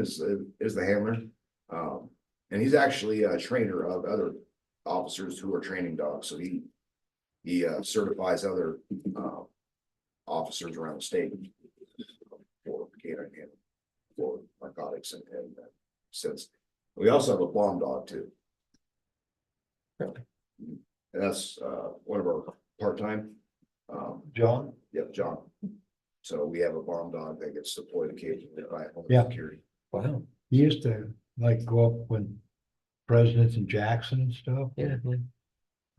is, is the handler. Um, and he's actually a trainer of other officers who are training dogs, so he. He uh, certifies other, uh, officers around the state. For canine handling, for narcotics and, and uh, since, we also have a bomb dog too. And that's, uh, one of our part-time, um, John? Yep, John. So we have a bomb dog that gets deployed occasionally by Yeah. Homeland Security. Wow. He used to like go up when presidents in Jackson and stuff. Yeah. yeah.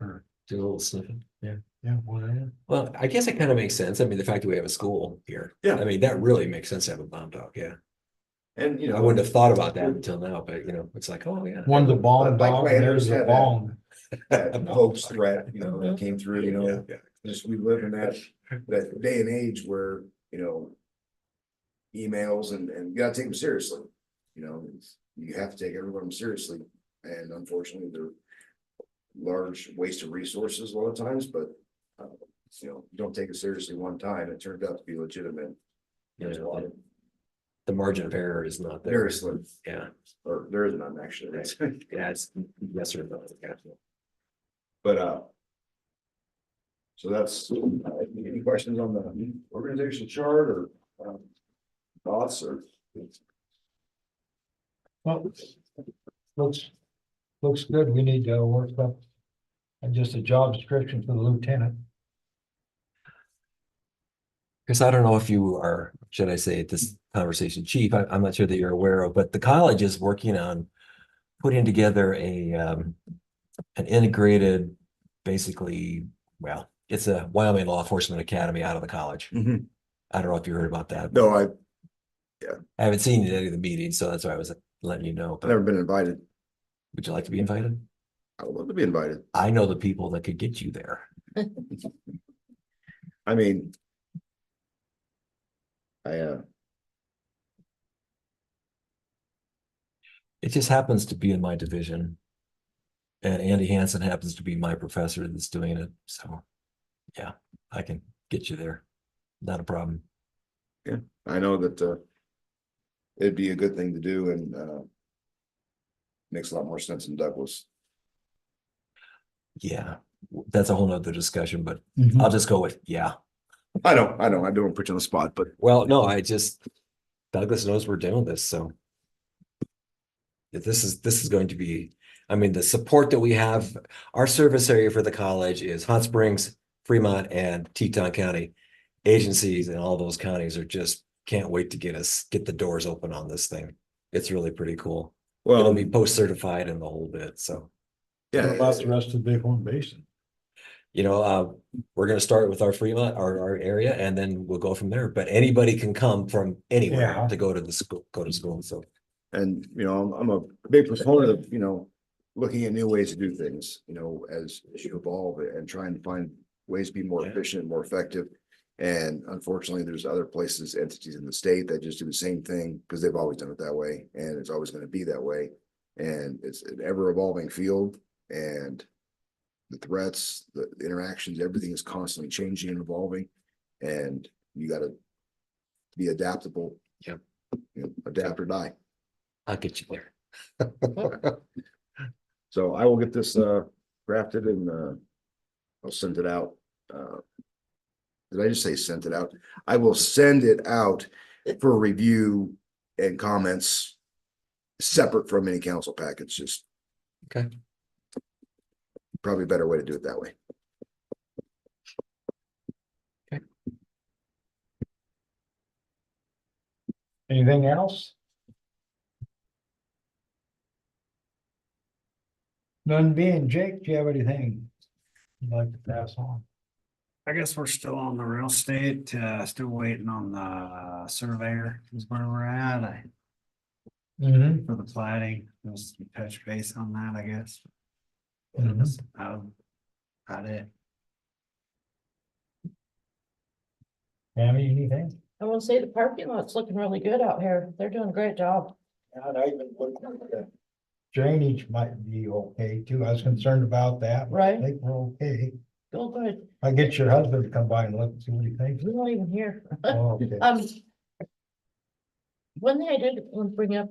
Or- Do a little sniffing. Yeah. Yeah, well, Well, I guess it kind of makes sense. I mean, the fact that we have a school here. Yeah. I mean, that really makes sense to have a bomb dog. Yeah. And, you know. I wouldn't have thought about that until now, but you know, it's like, oh, yeah. one of the bomb Like dogs, Landers there's had a that. bomb. that hoax threat, you know, that came through, you Yeah, know, yeah. just we live in that, that day and age where, you know. Emails and, and you gotta take them seriously, you know, it's- you have to take every one of them seriously, and unfortunately, they're. Large waste of resources a lot of times, but, uh, you know, you don't take it seriously one time, it turned out to be legitimate. There's a lot of, The margin of error is not there. very slim, Yeah. or there is none actually, right? Yeah. It's yes or no. Yeah. But, uh. So that's, uh, any questions on the organizational chart or, um, thoughts or? Well, looks, looks good. We need to work up. And just a job description for the lieutenant. Chris, I don't know if you are, should I say, at this conversation chief, I, I'm not sure that you're aware of, but the college is working on putting together a, um, an integrated, basically, well, it's a Wyoming Law Enforcement Academy out of the college. I don't know if you heard about that. Mm-hmm. No, I've I haven't seen you at any of the meetings, so that's why I was letting you know. But never been invited. would you like to be invited? I would love to be invited. I know the people that could get you there. I mean. I, uh, It just happens to be in my division. And Andy Hansen happens to be my professor that's doing it, so. Yeah, I can get you there. Not a problem. I know that, uh. It'd be a good thing to do and, uh. Makes a lot more sense in Douglas. Yeah, w- that's a whole nother discussion, but I'll just go with, yeah. I know, I know, I don't put you on the spot, but Well, no, I just, Douglas knows we're doing this, so. This is, this is going to be, I mean, the support that we have, our service area for the college is Hot Springs, Fremont and Teton County. Agencies in all those counties are just, can't wait to get us, get the doors open on this thing. It's really pretty cool. It'll well, be post certified and the whole bit, so. What yeah, About the rest of the Big Horn Basin. you know, uh, we're gonna start with our Fremont, our, our area, and then we'll go from there, but anybody can come from anywhere Yeah. to go to the school, go to school, so. And, you know, I'm, I'm a big proponent of, you know, looking at new ways to do things, you know, as as you evolve and trying to find ways to be more Yeah. efficient, more effective. And unfortunately, there's other places, entities in the state that just do the same thing because they've always done it that way and it's always going to be that way. And it's an ever evolving field and the threats, the the interactions, everything is constantly changing and evolving. And you gotta be adaptable. Yep. You know, Adapt or die. I'll get you there. So I will get this uh drafted and uh I'll send it out. Uh Did I just say sent it out? I will send it out for review and comments separate from any council package, just. Okay. Probably a better way to do it that way. Anything else? None being Jake, do you have anything you'd like to pass on? I guess we're still on the real estate, uh, still waiting on the surveyor is where we're at, I, Mm-hmm. for the plating, just touch base on that, I guess. Mhm. Um, About it. Tammy, anything? I want to say the parking lot's looking really good out here. They're doing a great job. And I even looked at the. Drainage might be okay too. I was concerned about that. but I Right. think we're okay. Feel good. I'll get your husband to come by and look and see what he thinks. We're not even here. Oh, okay. Um. One thing I did want to bring up